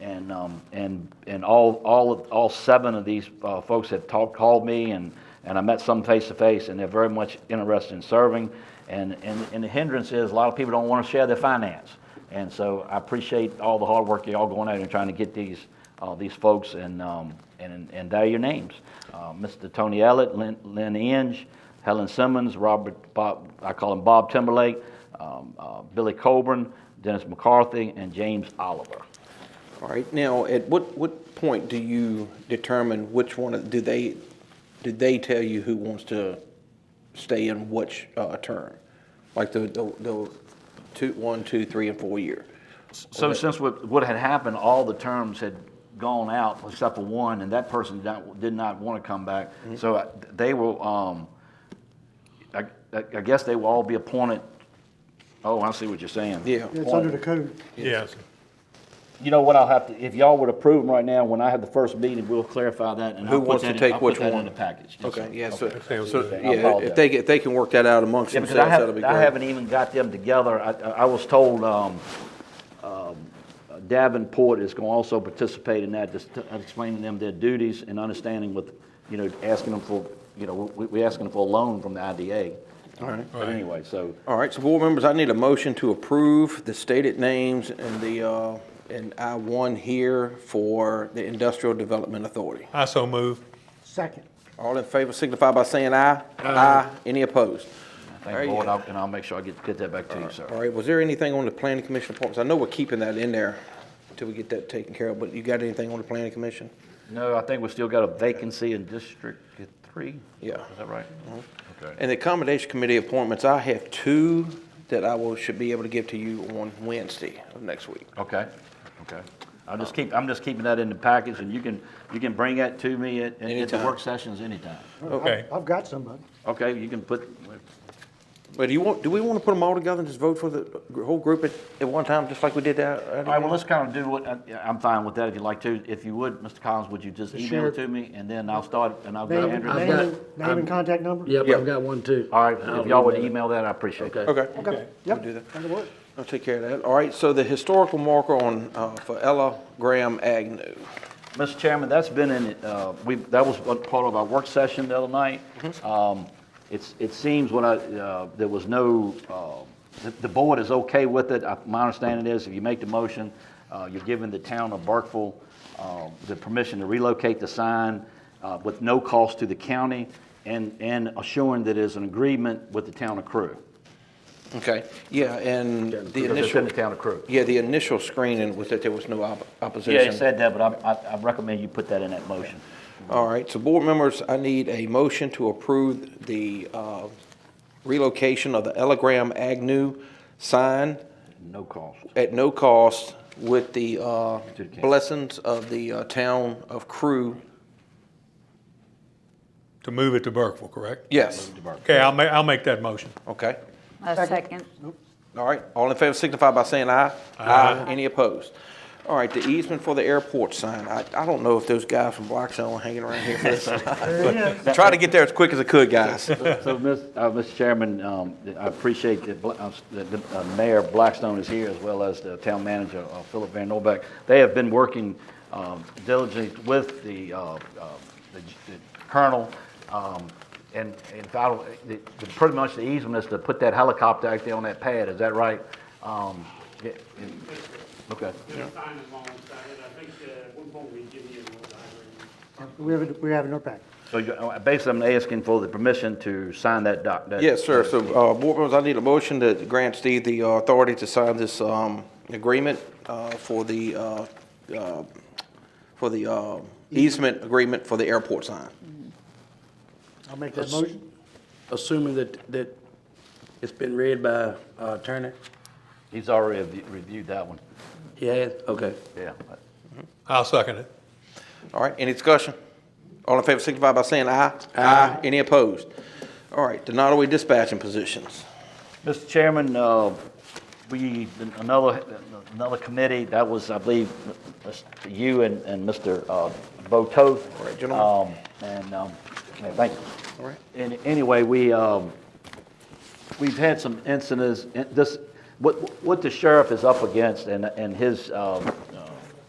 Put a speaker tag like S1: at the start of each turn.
S1: and, um, and, and all, all, of- all seven of these uh, folks have talked, called me, and, and I met some face to face, and they're very much interested in serving. And, and, and the hindrance is, a lot of people don't want to share their finance. And so I appreciate all the hard work y'all going out and trying to get these, uh, these folks, and, um, and, and there are your names. Uh, Mr. Tony Ellett, Lynn, Lynn Inge, Helen Simmons, Robert, Bob, I call him Bob Timberlake, um, uh, Billy Coburn, Dennis McCarthy, and James Oliver.
S2: All right, now, at what, what point do you determine which one, of- do they, do they tell you who wants to stay in which uh, term? Like the, the the two, one, two, three, and four year?
S1: So since what, what had happened, all the terms had gone out except for one, and that person did not, did not want to come back. So I- they will, um, I, I I guess they will all be appointed, oh, I see what you're saying.
S2: Yeah.
S3: It's under the code.
S4: Yes.
S1: You know what, I'll have to, if y'all would approve them right now, when I have the first meeting, we'll clarify that and
S2: Who
S1: I'll put
S2: wants to
S1: that in-
S2: take
S1: I'll
S2: which
S1: put that in
S2: one?
S1: the package. Yes,
S2: Okay,
S1: sir.
S2: yeah, so,
S4: Okay, so-
S1: I
S2: yeah,
S1: apologize.
S2: if they, if they can work that out amongst
S1: Yeah, because
S2: themselves,
S1: I
S2: that'll be
S1: haven't,
S2: great.
S1: I haven't even got them together. I, I I was told, um, um, Davenport is going to also participate in that, just to- explaining them their duties and understanding with, you know, asking them for, you know, we, we asking them for a loan from the IDA. All
S2: right.
S1: But anyway, so,
S2: All right, so board members, I need a motion to approve the stated names and the, uh, and I one here for the Industrial Development Authority.
S4: I so move.
S3: Second.
S2: All in favor signify by saying aye. Aye. Any opposed? There
S1: thank
S2: you
S1: the Lord,
S2: go.
S1: I'll- and I'll make sure I get, get that back to you,
S2: All
S1: sir.
S2: right, was there anything on the planning commission appointments? I know we're keeping that in there until we get that taken care of, but you got anything on the planning commission?
S1: No, I think we still got a vacancy in District Three.
S2: Yeah. Mm-hmm.
S1: Is that right? Okay.
S2: And the accommodation committee appointments, I have two that I will, should be able to give to you on Wednesday of next week.
S1: Okay, okay. I'll just keep, I'm just keeping that in the package, and you can, you can bring that to me at, at- at the
S2: Anytime.
S1: work sessions anytime.
S2: Okay.
S3: I've- I've got somebody.
S1: Okay, you can put,
S2: But do you want, do we want to put them all together and just vote for the whole group at, at one time, just like we did that?
S1: all right, well, let's kind of do what, I- I'm fine with that if you'd like to. If you would, Mr. Collins, would you just email
S5: sure.
S1: it to me, and then I'll start, and I'll get
S3: Name,
S1: Andrew.
S3: name,
S5: got-
S3: and- name and contact number?
S5: Yep,
S2: Yeah.
S5: I've got one too.
S1: All right, if y'all would
S5: I'll email
S1: email that, I appreciate it.
S5: it.
S2: Okay,
S3: Okay,
S2: We'll
S3: yep,
S2: do that.
S3: that'll work.
S2: I'll take care of that. All right, so the historical marker on, uh, for Ella Graham Agnew.
S1: Mr. Chairman, that's been in, uh, we, that was one part of our work session the other night. Um, It's, it seems when I, uh, there was no, uh, the- the board is okay with it. I- My understanding is if you make the motion, uh, you're giving the town of Burkeville uh, the permission to relocate the sign uh, with no cost to the county and, and assuring that it's an agreement with the town of Crew.
S2: Okay, yeah, and the
S1: Because it's in
S2: initial,
S1: the town of Crew.
S2: yeah, the initial screening was that there was no op- opposition.
S1: Yeah, he said that, but I, I- I recommend you put that in that motion.
S2: All right, so board members, I need a motion to approve the uh, relocation of the Ella Graham Agnew sign
S1: No cost.
S2: at no cost with the uh,
S1: the county.
S2: blessings of the uh, town of Crew.
S4: To move it to Burkeville, correct?
S2: Yes,
S4: Okay, I'll ma, I'll make that motion.
S2: okay.
S6: A second.
S2: All right, all in favor signify by saying aye. Aye. Any opposed? All right, the easement for the airport sign, I, I don't know if those guys from Blackstone were hanging around here for this. Try to get there as quick as I could, guys.
S1: So, Miss- uh, Mr. Chairman, um, I appreciate that Bla- uh, that the uh, Mayor Blackstone is here, as well as the town manager, uh, Philip Van Norbeck. They have been working um, diligently with the uh, uh, the the colonel, um, and and I don't- the- the- pretty much the easement is to put that helicopter out there on that pad, is that right? Um, yeah, yeah, Okay.
S7: There's sign alongside it, I think uh, at one point we give you a little diagram.
S3: We have, it- we have it in our packet.
S1: So you- uh, basically, I'm asking for the permission to sign that doc. that-
S2: Yes, sir. So, uh, board members, I need a motion to grant Steve the uh, authority to sign this, um, agreement, uh, for the, uh, uh, for the, uh, easement agreement for the airport sign.
S3: I'll make that motion.
S5: Assuming that, that it's been read by uh, attorney?
S1: He's already reviewed- reviewed that one,
S5: He has, okay.
S1: yeah.
S4: I'll second it.
S2: All right, any discussion? All in favor signify by saying aye. Aye. Any opposed? All right, the Nottaway dispatching positions.
S1: Mr. Chairman, uh, we, another, another committee, that was, I believe, you and, and Mr. uh, Bo Toth.
S2: All right, gentlemen.
S1: Um, And, um, yeah, thank you.
S2: All right.
S1: And anyway, we, um, we've had some incidents, and this, what, what the sheriff is up against and, and his, um,